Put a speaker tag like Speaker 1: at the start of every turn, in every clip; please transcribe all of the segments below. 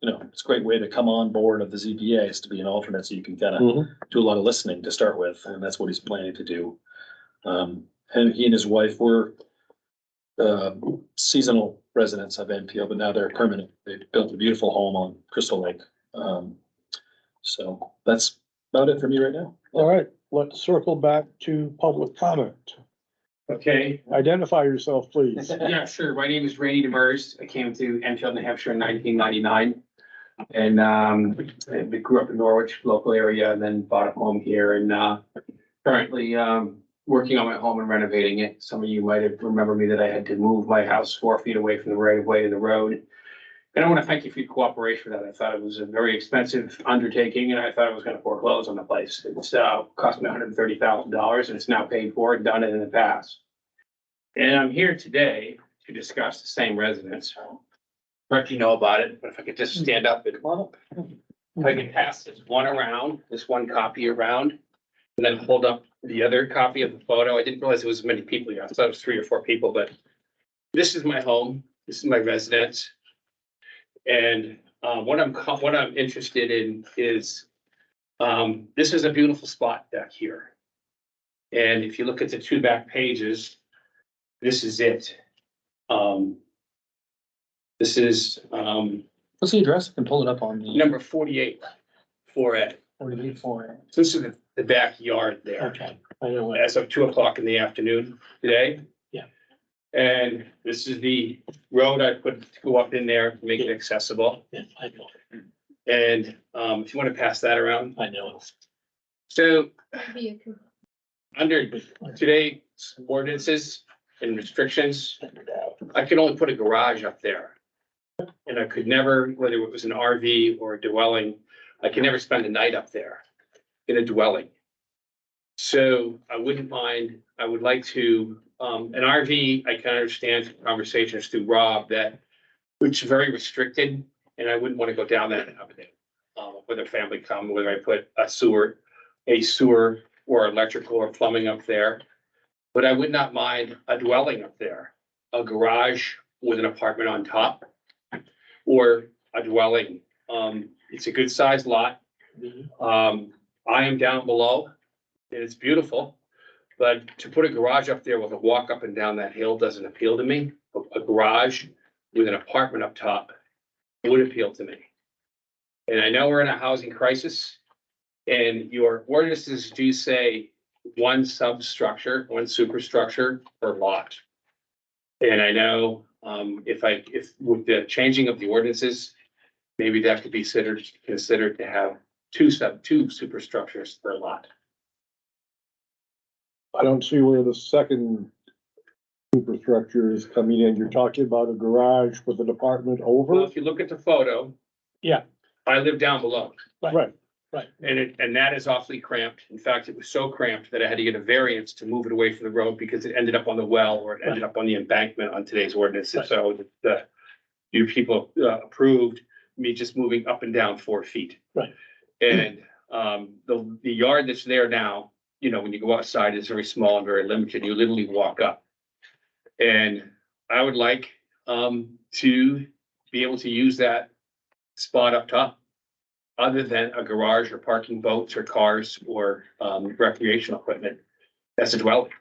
Speaker 1: you know, it's a great way to come on board of the ZBA is to be an alternate, so you can kind of
Speaker 2: Mhm.
Speaker 1: do a lot of listening to start with, and that's what he's planning to do. Um, and he and his wife were uh, seasonal residents of NPO, but now they're permanent. They built a beautiful home on Crystal Lake. Um, so that's about it for me right now.
Speaker 2: All right, let's circle back to public comment.
Speaker 3: Okay,
Speaker 2: Identify yourself, please.
Speaker 3: yeah, sure. My name is Randy Demers. I came to Enfield, New Hampshire in nineteen ninety-nine. And um, I grew up in Norwich, local area, and then bought a home here and uh, currently um, working on my home and renovating it. Some of you might have remembered me that I had to move my house four feet away from the right of way of the road. And I want to thank you for your cooperation with that. I thought it was a very expensive undertaking and I thought I was going to foreclose on the place. It's uh, cost me hundred and thirty thousand dollars and it's now paid for and done it in the past. And I'm here today to discuss the same residence. Correct, you know about it, but if I could just stand up and, if I could pass this one around, this one copy around, and then hold up the other copy of the photo. I didn't realize it was as many people here. I thought it was three or four people, but this is my home. This is my residence. And uh, what I'm, co- what I'm interested in is, um, this is a beautiful spot back here. And if you look at the two back pages, this is it. Um, this is, um,
Speaker 1: What's the address? I can pull it up on the
Speaker 3: number forty-eight, four A.
Speaker 1: forty-eight four.
Speaker 3: So This is the- the backyard there,
Speaker 1: Okay, I know what.
Speaker 3: as of two o'clock in the afternoon today.
Speaker 1: Yeah.
Speaker 3: And this is the road I put to go up in there, to make it accessible.
Speaker 1: I know,
Speaker 3: And, um, if you want to pass that around.
Speaker 1: I know.
Speaker 3: So
Speaker 4: Maybe you can
Speaker 3: under today's ordinances and restrictions, I could only put a garage up there. And I could never, whether it was an RV or a dwelling, I could never spend a night up there in a dwelling. So I wouldn't mind, I would like to, um, an RV, I can understand from conversations through Rob that it's very restricted and I wouldn't want to go down that avenue. Um, whether family come, whether I put a sewer, a sewer or electrical or plumbing up there. But I would not mind a dwelling up there, a garage with an apartment on top. Or a dwelling. Um, it's a good sized lot. Um, I am down below. and It's beautiful. But to put a garage up there with a walk up and down that hill doesn't appeal to me. A- A garage with an apartment up top would appeal to me. And I know we're in a housing crisis. And your ordinances do say one substructure, one superstructure per lot. And I know, um, if I, if with the changing of the ordinances, maybe that could be considered, considered to have two sub, two superstructures per lot.
Speaker 2: I don't see where the second superstructure is coming in. You're talking about a garage with an apartment
Speaker 3: Well,
Speaker 2: over?
Speaker 3: if you look at the photo.
Speaker 5: Yeah.
Speaker 3: I live down below
Speaker 2: Right,
Speaker 3: and it, and that is awfully cramped. In fact, it was so cramped that I had to get a variance to move it away from the road because it ended up on the well or it ended up on the embankment on today's ordinance. And so the, you people uh, approved me just moving up and down four feet.
Speaker 5: Right.
Speaker 3: And, um, the, the yard that's there now, you know, when you go outside is very small and very limited. You literally walk up. And I would like, um, to be able to use that spot up top other than a garage or parking boats or cars or um recreational equipment. That's a dwelling.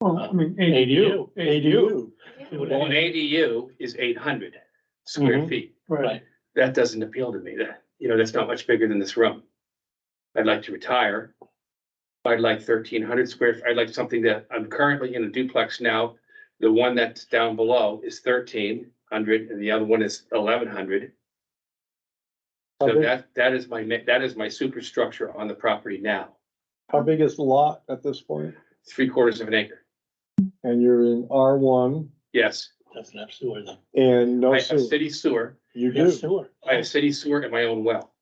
Speaker 5: Well, I mean, ADU.
Speaker 2: ADU.
Speaker 3: Well, an ADU is eight hundred square
Speaker 2: Mhm.
Speaker 3: feet.
Speaker 5: Right.
Speaker 3: That doesn't appeal to me. That, you know, that's not much bigger than this room. I'd like to retire. I'd like thirteen hundred square, I'd like something that I'm currently in a duplex now. The one that's down below is thirteen hundred and the other one is eleven hundred.
Speaker 2: How
Speaker 3: So
Speaker 2: big,
Speaker 3: that, that is my, ma- that is my superstructure on the property now,
Speaker 2: how big is the lot at this point?
Speaker 3: three quarters of an acre.
Speaker 2: And you're in R one
Speaker 3: Yes,
Speaker 5: That's an absolute, isn't
Speaker 2: and no
Speaker 3: I have
Speaker 2: sewer.
Speaker 3: city sewer,
Speaker 2: You
Speaker 5: it? Yeah,
Speaker 2: do,
Speaker 5: sewer.
Speaker 3: I have city sewer and my own well.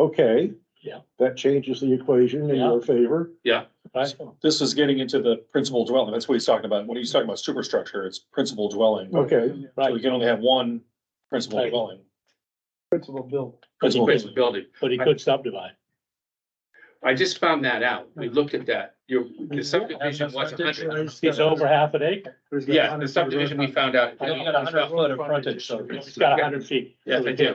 Speaker 2: okay.
Speaker 5: Yeah.
Speaker 2: That changes the equation in
Speaker 5: Yeah.
Speaker 2: your favor.
Speaker 5: Right.
Speaker 1: This is getting into the principal dwelling. That's what he's talking about. When he's talking about superstructure, it's principal dwelling.
Speaker 2: Okay.
Speaker 1: So we
Speaker 5: Right,
Speaker 1: can only have one principal
Speaker 5: Right.
Speaker 1: dwelling.
Speaker 2: Principal bill.
Speaker 1: Principal
Speaker 3: Principal building.
Speaker 5: but he could subdivide.
Speaker 3: I just found that out. We looked at that. Your, the subdivision was a hundred.
Speaker 5: He's over half an acre.
Speaker 3: Yeah, the subdivision we found out.
Speaker 1: You got a hundred foot of frontage, so
Speaker 5: He's got a hundred feet.
Speaker 3: Yes, I do.